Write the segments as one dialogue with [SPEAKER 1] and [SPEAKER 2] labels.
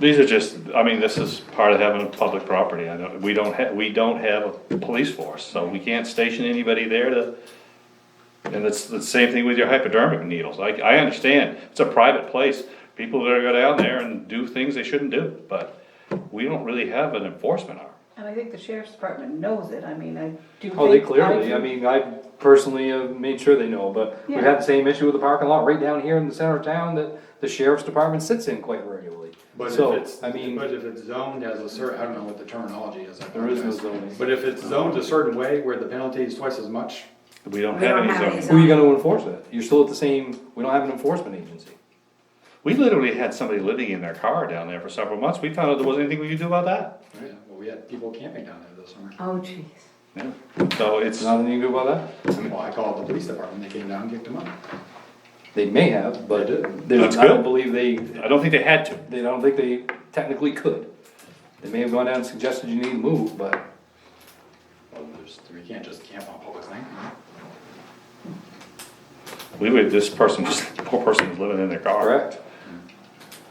[SPEAKER 1] These are just, I mean, this is part of having a public property, I know, we don't have, we don't have a police force, so we can't station anybody there to. And it's the same thing with your hypodermic needles, I, I understand, it's a private place, people that are gonna go down there and do things they shouldn't do, but we don't really have an enforcement arm.
[SPEAKER 2] And I think the sheriff's department knows it, I mean, I do think.
[SPEAKER 3] Oh, they clearly,
[SPEAKER 2] do-
[SPEAKER 3] I mean, I personally have made sure they know, but we've had the same issue with the parking lot right down here in the center of town that the sheriff's department sits in quite regularly.
[SPEAKER 4] But if
[SPEAKER 3] So,
[SPEAKER 4] it's,
[SPEAKER 3] I mean,
[SPEAKER 4] but if it's zoned as a cer, I don't know what the terminology is. I
[SPEAKER 3] there is no
[SPEAKER 4] apologize.
[SPEAKER 3] zoning.
[SPEAKER 4] But if it's zoned a certain way where the penalty is twice as much,
[SPEAKER 1] We don't
[SPEAKER 5] We
[SPEAKER 1] have
[SPEAKER 5] don't
[SPEAKER 1] any
[SPEAKER 5] have any
[SPEAKER 1] zoning.
[SPEAKER 3] Who are you gonna enforce that? You're still at the same, we don't have an enforcement agency.
[SPEAKER 1] We literally had somebody living in their car down there for several months, we found out there wasn't anything we could do about that.
[SPEAKER 4] yeah, well, we had people camping down there this summer.
[SPEAKER 5] Oh, jeez.
[SPEAKER 1] Yeah. So it's,
[SPEAKER 3] There's nothing you can do about that?
[SPEAKER 4] Well, I called the police department, they came down and kicked them out.
[SPEAKER 3] They may have, but
[SPEAKER 4] They did.
[SPEAKER 3] there's,
[SPEAKER 1] That's
[SPEAKER 3] I don't
[SPEAKER 1] good.
[SPEAKER 3] believe they,
[SPEAKER 1] I don't think they had to.
[SPEAKER 3] they don't think they technically could. They may have gone down and suggested you need to move, but
[SPEAKER 4] Well, there's, we can't just camp on public land.
[SPEAKER 1] We would, this person, was- poor person was living in their car.
[SPEAKER 3] correct?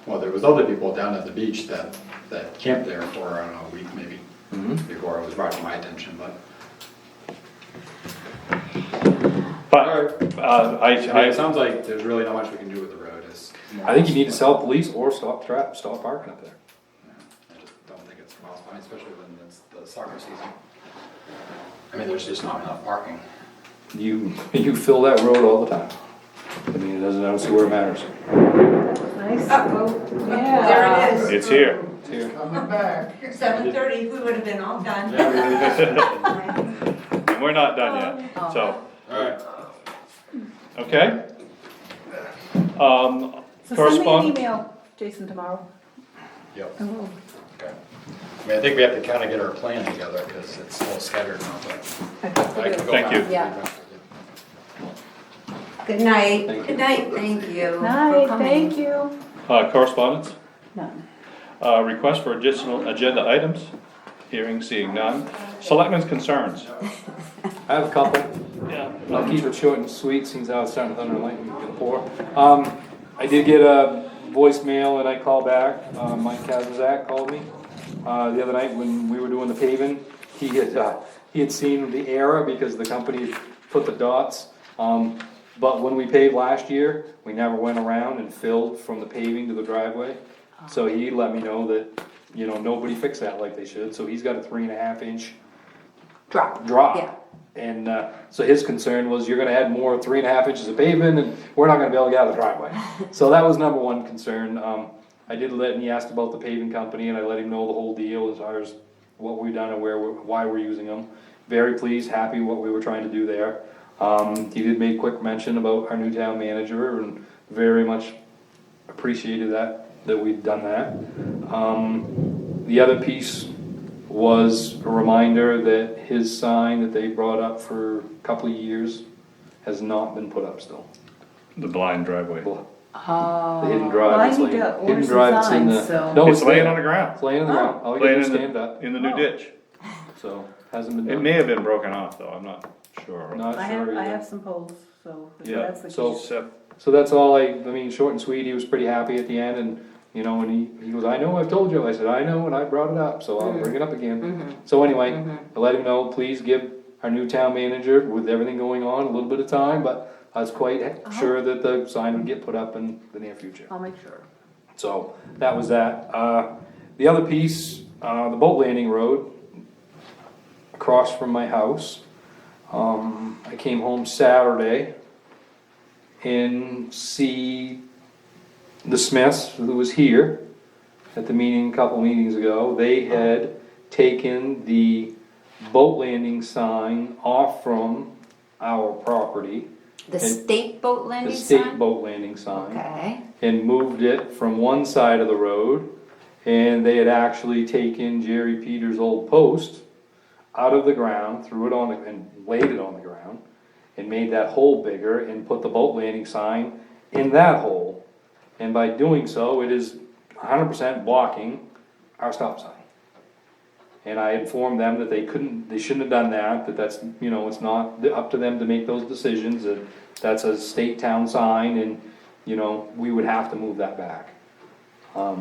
[SPEAKER 4] Well, there was other people down at the beach that, that camped there for, I don't know, a week maybe,
[SPEAKER 3] Mm-hmm.
[SPEAKER 4] before it was brought to my attention, but.
[SPEAKER 1] But, uh, I,
[SPEAKER 4] I mean,
[SPEAKER 1] I,
[SPEAKER 4] it sounds like there's really not much we can do with the road, it's. more-
[SPEAKER 3] I think you need to sell police or stop trap, stop parking up there.
[SPEAKER 4] I just don't think it's possible, I mean, especially when it's the soccer season. I mean, there's just not enough parking.
[SPEAKER 3] You, you fill that road all the time. I mean, it doesn't, I don't see where it matters.
[SPEAKER 2] Nice.
[SPEAKER 5] Uh-oh,
[SPEAKER 2] Yeah.
[SPEAKER 5] there it is.
[SPEAKER 1] it's here.
[SPEAKER 3] It's here.
[SPEAKER 5] Seven thirty, we would have been all done.
[SPEAKER 1] And we're not done yet, so,
[SPEAKER 4] Alright.
[SPEAKER 1] okay? Um,
[SPEAKER 2] So send me an
[SPEAKER 1] correspond,
[SPEAKER 2] email, Jason, tomorrow.
[SPEAKER 4] Yep,
[SPEAKER 2] and we'll-
[SPEAKER 4] okay. I mean, I think we have to kinda get our plan together, cause it's a little scattered now, but.
[SPEAKER 2] I think we'll
[SPEAKER 4] I
[SPEAKER 2] do
[SPEAKER 4] can
[SPEAKER 2] it.
[SPEAKER 4] go
[SPEAKER 1] Thank you.
[SPEAKER 4] back.
[SPEAKER 5] Yeah. Good night.
[SPEAKER 3] Thank you.
[SPEAKER 5] Good night, thank you. for
[SPEAKER 2] Night,
[SPEAKER 5] coming.
[SPEAKER 2] thank you.
[SPEAKER 1] uh, correspondence,
[SPEAKER 2] None.
[SPEAKER 1] uh, request for additional agenda items, hearing, seeing none. Selectmen's concerns.
[SPEAKER 3] I have a couple. I'll keep it short and sweet, since I was starting to thunder and lightning before. Um, I did get a voicemail and I called back, uh, Mike Kazazak called me, uh, the other night when we were doing the paving. He had, uh, he had seen the error because the company put the dots, um, but when we paved last year, we never went around and filled from the paving to the driveway. So he let me know that, you know, nobody fixed that like they should, so he's got a three and a half inch
[SPEAKER 5] Drop. Yeah.
[SPEAKER 3] drop. And, uh, so his concern was you're gonna add more three and a half inches of pavement and we're not gonna be able to get out of the driveway. So that was number one concern. Um, I did let, and he asked about the paving company and I let him know the whole deal as far as what we've done and where, we're- why we're using them. Very pleased, happy what we were trying to do there. Um, he did make quick mention about our new town manager and very much appreciated that, that we've done that. Um, the other piece was a reminder that his sign that they brought up for a couple of years has not been put up still.
[SPEAKER 1] The blind driveway.
[SPEAKER 3] The hidden
[SPEAKER 2] Well, I
[SPEAKER 3] drive, it's
[SPEAKER 2] need
[SPEAKER 3] like,
[SPEAKER 2] to order
[SPEAKER 3] hidden
[SPEAKER 2] some
[SPEAKER 3] drive, it's in
[SPEAKER 2] signs,
[SPEAKER 3] the,
[SPEAKER 2] so-
[SPEAKER 3] no,
[SPEAKER 1] It's
[SPEAKER 3] it's
[SPEAKER 1] laying
[SPEAKER 3] there.
[SPEAKER 1] on the ground,
[SPEAKER 3] It's laying on the ground, all you
[SPEAKER 1] laying
[SPEAKER 3] gotta do
[SPEAKER 1] in
[SPEAKER 3] is stand
[SPEAKER 1] the,
[SPEAKER 3] up,
[SPEAKER 1] in the
[SPEAKER 2] Oh.
[SPEAKER 1] new ditch.
[SPEAKER 3] so, hasn't been
[SPEAKER 1] It
[SPEAKER 3] done.
[SPEAKER 1] may have been broken off though, I'm not sure.
[SPEAKER 3] Not
[SPEAKER 2] I have,
[SPEAKER 3] sure
[SPEAKER 2] I
[SPEAKER 3] either.
[SPEAKER 2] have some polls, so if
[SPEAKER 1] Yeah,
[SPEAKER 2] that's the
[SPEAKER 3] so-
[SPEAKER 2] case.
[SPEAKER 1] Except
[SPEAKER 3] So that's all I, I mean, short and sweet, he was pretty happy at the end and, you know, and he, he goes, I know, I've told you, I said, I know, and I brought it up, so I'll bring it up again. So anyway, I let him know, please give our new town manager, with everything going on, a little bit of time, but I was quite sure that the sign would get put up in the near future.
[SPEAKER 2] I'll make sure.
[SPEAKER 3] So that was that. Uh, the other piece, uh, the boat landing road across from my house. Um, I came home Saturday and see the Smiths who was here at the meeting a couple meetings ago. They had taken the boat landing sign off from our property,
[SPEAKER 5] The
[SPEAKER 3] And-
[SPEAKER 5] state boat
[SPEAKER 3] the
[SPEAKER 5] landing
[SPEAKER 3] state
[SPEAKER 5] sign?
[SPEAKER 3] boat landing sign
[SPEAKER 5] Okay.
[SPEAKER 3] and moved it from one side of the road. And they had actually taken Jerry Peters' old post out of the ground, threw it on, the and laid it on the ground. And made that hole bigger and put the boat landing sign in that hole. And by doing so, it is hundred percent blocking our stop sign. And I informed them that they couldn't, they shouldn't have done that, that that's, you know, it's not up to them to make those decisions, that that's a state town sign and, you know, we would have to move that back. Um,